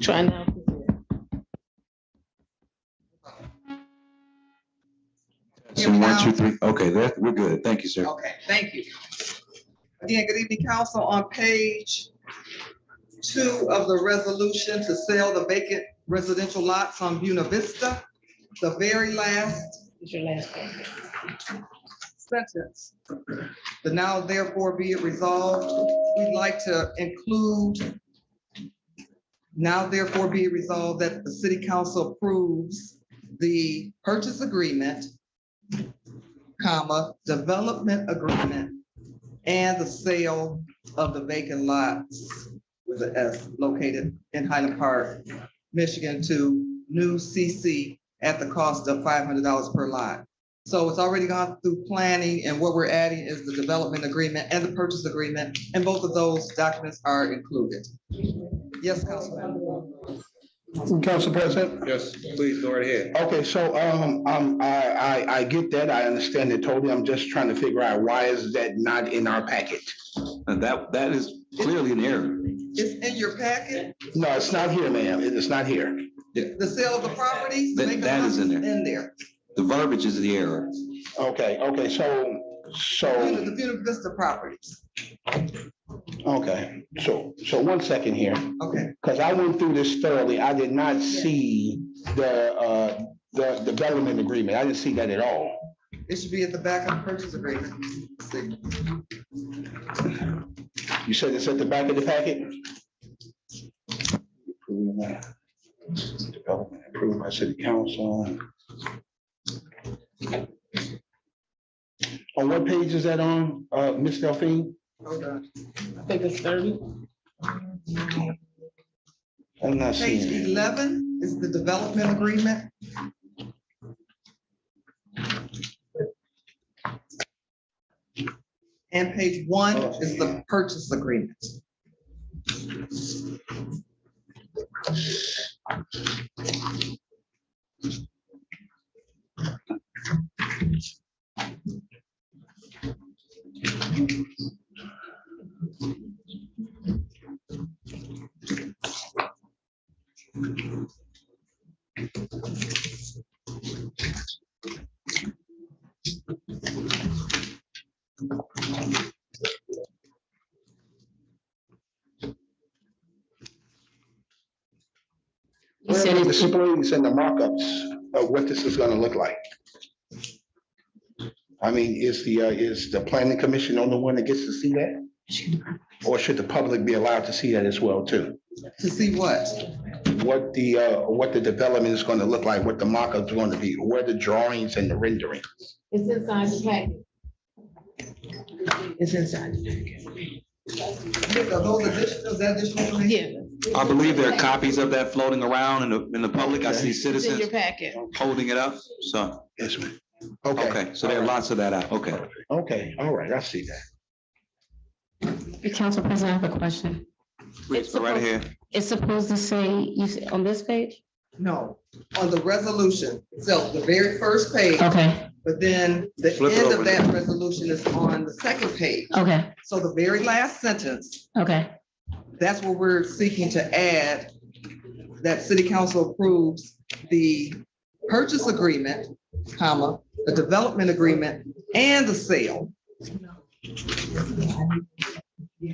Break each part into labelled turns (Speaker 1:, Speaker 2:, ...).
Speaker 1: Try now.
Speaker 2: So one, two, three, okay, that, we're good, thank you, sir.
Speaker 3: Okay, thank you. Again, good evening, council. On page two of the resolution to sell the vacant residential lots on Buena Vista, the very last
Speaker 1: It's your last one.
Speaker 3: sentence. The now therefore be it resolved, we'd like to include now therefore be it resolved that the city council approves the purchase agreement, comma, development agreement, and the sale of the vacant lots with the S located in Highland Park, Michigan to new CC at the cost of five hundred dollars per lot. So it's already gone through planning and what we're adding is the development agreement and the purchase agreement, and both of those documents are included. Yes, Councilman.
Speaker 4: Council President?
Speaker 5: Yes, please, go right ahead.
Speaker 4: Okay, so, um, um, I, I, I get that. I understand it totally. I'm just trying to figure out why is that not in our packet?
Speaker 2: And that, that is clearly an error.
Speaker 3: It's in your packet,
Speaker 4: No, it's not here, ma'am. It is not here.
Speaker 3: the sale of the property.
Speaker 2: That- that is in there.
Speaker 3: In there.
Speaker 2: The verbiage is the error.
Speaker 4: Okay, okay, so,
Speaker 3: Buena-
Speaker 4: so,
Speaker 3: The Buena Vista properties.
Speaker 4: okay, so, so one second here,
Speaker 3: Okay,
Speaker 4: because I went through this thoroughly. I did not see the, uh, the the development agreement. I didn't see that at all.
Speaker 3: it should be at the back of the purchase agreement. See,
Speaker 4: You said it's at the back of the packet? Development approved by city council. On what page is that on, uh, Ms. Delphine?
Speaker 3: hold on.
Speaker 1: I think it's thirty.
Speaker 4: I'm not
Speaker 3: Page
Speaker 4: seeing it.
Speaker 3: eleven is the development agreement. And page one is the purchase agreement.
Speaker 1: He said
Speaker 4: Where are the
Speaker 1: it's,
Speaker 4: Displays and the markups of what this is gonna look like. I mean, is the, uh, is the planning commission the only one that gets to see that? Or should the public be allowed to see that as well too?
Speaker 3: To see what?
Speaker 4: what the, uh, what the development is gonna look like, what the mockup's gonna be, where the drawings and the rendering.
Speaker 1: it's inside the packet. It's inside.
Speaker 3: Are Those additional, is that additional information?
Speaker 1: Yeah.
Speaker 2: I believe there are copies of that floating around in the, in the public. I see
Speaker 1: It's in your
Speaker 2: citizens
Speaker 1: packet.
Speaker 2: holding it up, so,
Speaker 4: Yes, ma'am.
Speaker 2: okay, so there are lots of that out, okay.
Speaker 4: Okay, all right, I see that.
Speaker 6: Council President, I have a question.
Speaker 2: Please, go right ahead.
Speaker 6: It's supposed to say, you, s- on this page?
Speaker 3: No, on the resolution, so the very first page,
Speaker 6: Okay,
Speaker 3: but then the
Speaker 2: Flip it
Speaker 3: end
Speaker 2: over.
Speaker 3: of that resolution is on the second page.
Speaker 6: okay,
Speaker 3: So the very last sentence
Speaker 6: okay,
Speaker 3: That's where we're seeking to add, that city council approves the purchase agreement, comma, the development agreement, and the sale.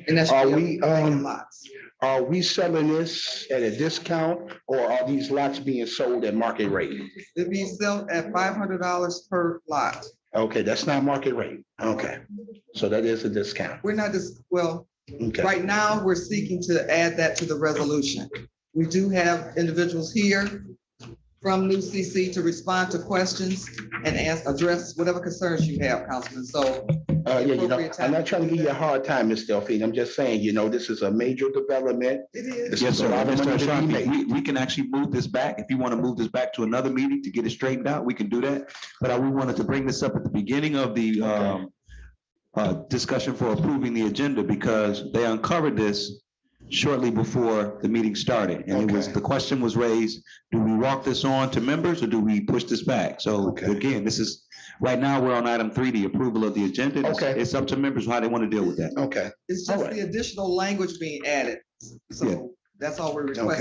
Speaker 3: And that's.
Speaker 4: Are we, um,
Speaker 3: Lots.
Speaker 4: Are we selling this at a discount or are these lots being sold at market rate?
Speaker 3: It'd be sold at five hundred dollars per lot.
Speaker 4: Okay, that's not market rate. Okay, so that is a discount.
Speaker 3: We're not just, well,
Speaker 4: Okay,
Speaker 3: Right now, we're seeking to add that to the resolution. We do have individuals here from New CC to respond to questions and ask, address whatever concerns you have, Councilman. So
Speaker 4: uh, yeah, you know, I'm not trying to give you a hard time, Ms. Delphine. I'm just saying, you know, this is a major development.
Speaker 3: it is,
Speaker 4: This
Speaker 2: Yes,
Speaker 4: is
Speaker 2: sir.
Speaker 4: a lot of money
Speaker 2: Mr.
Speaker 4: to be
Speaker 2: Ashafi,
Speaker 4: made.
Speaker 2: We, we can actually move this back. If you want to move this back to another meeting to get it straightened out, we can do that. But I, we wanted to bring this up at the beginning of the, um, uh, discussion for approving the agenda because they uncovered this shortly before the meeting started. And it was,
Speaker 4: Okay.
Speaker 2: the question was raised, do we walk this on to members or do we push this back? So
Speaker 4: Okay.
Speaker 2: again, this is, right now, we're on item three, the approval of the agenda. It's-
Speaker 4: Okay.
Speaker 2: It's up to members how they want to deal with that.
Speaker 4: Okay.
Speaker 3: it's just the additional language being added.
Speaker 2: Yeah.
Speaker 3: So that's all we're
Speaker 4: Okay.
Speaker 3: requesting.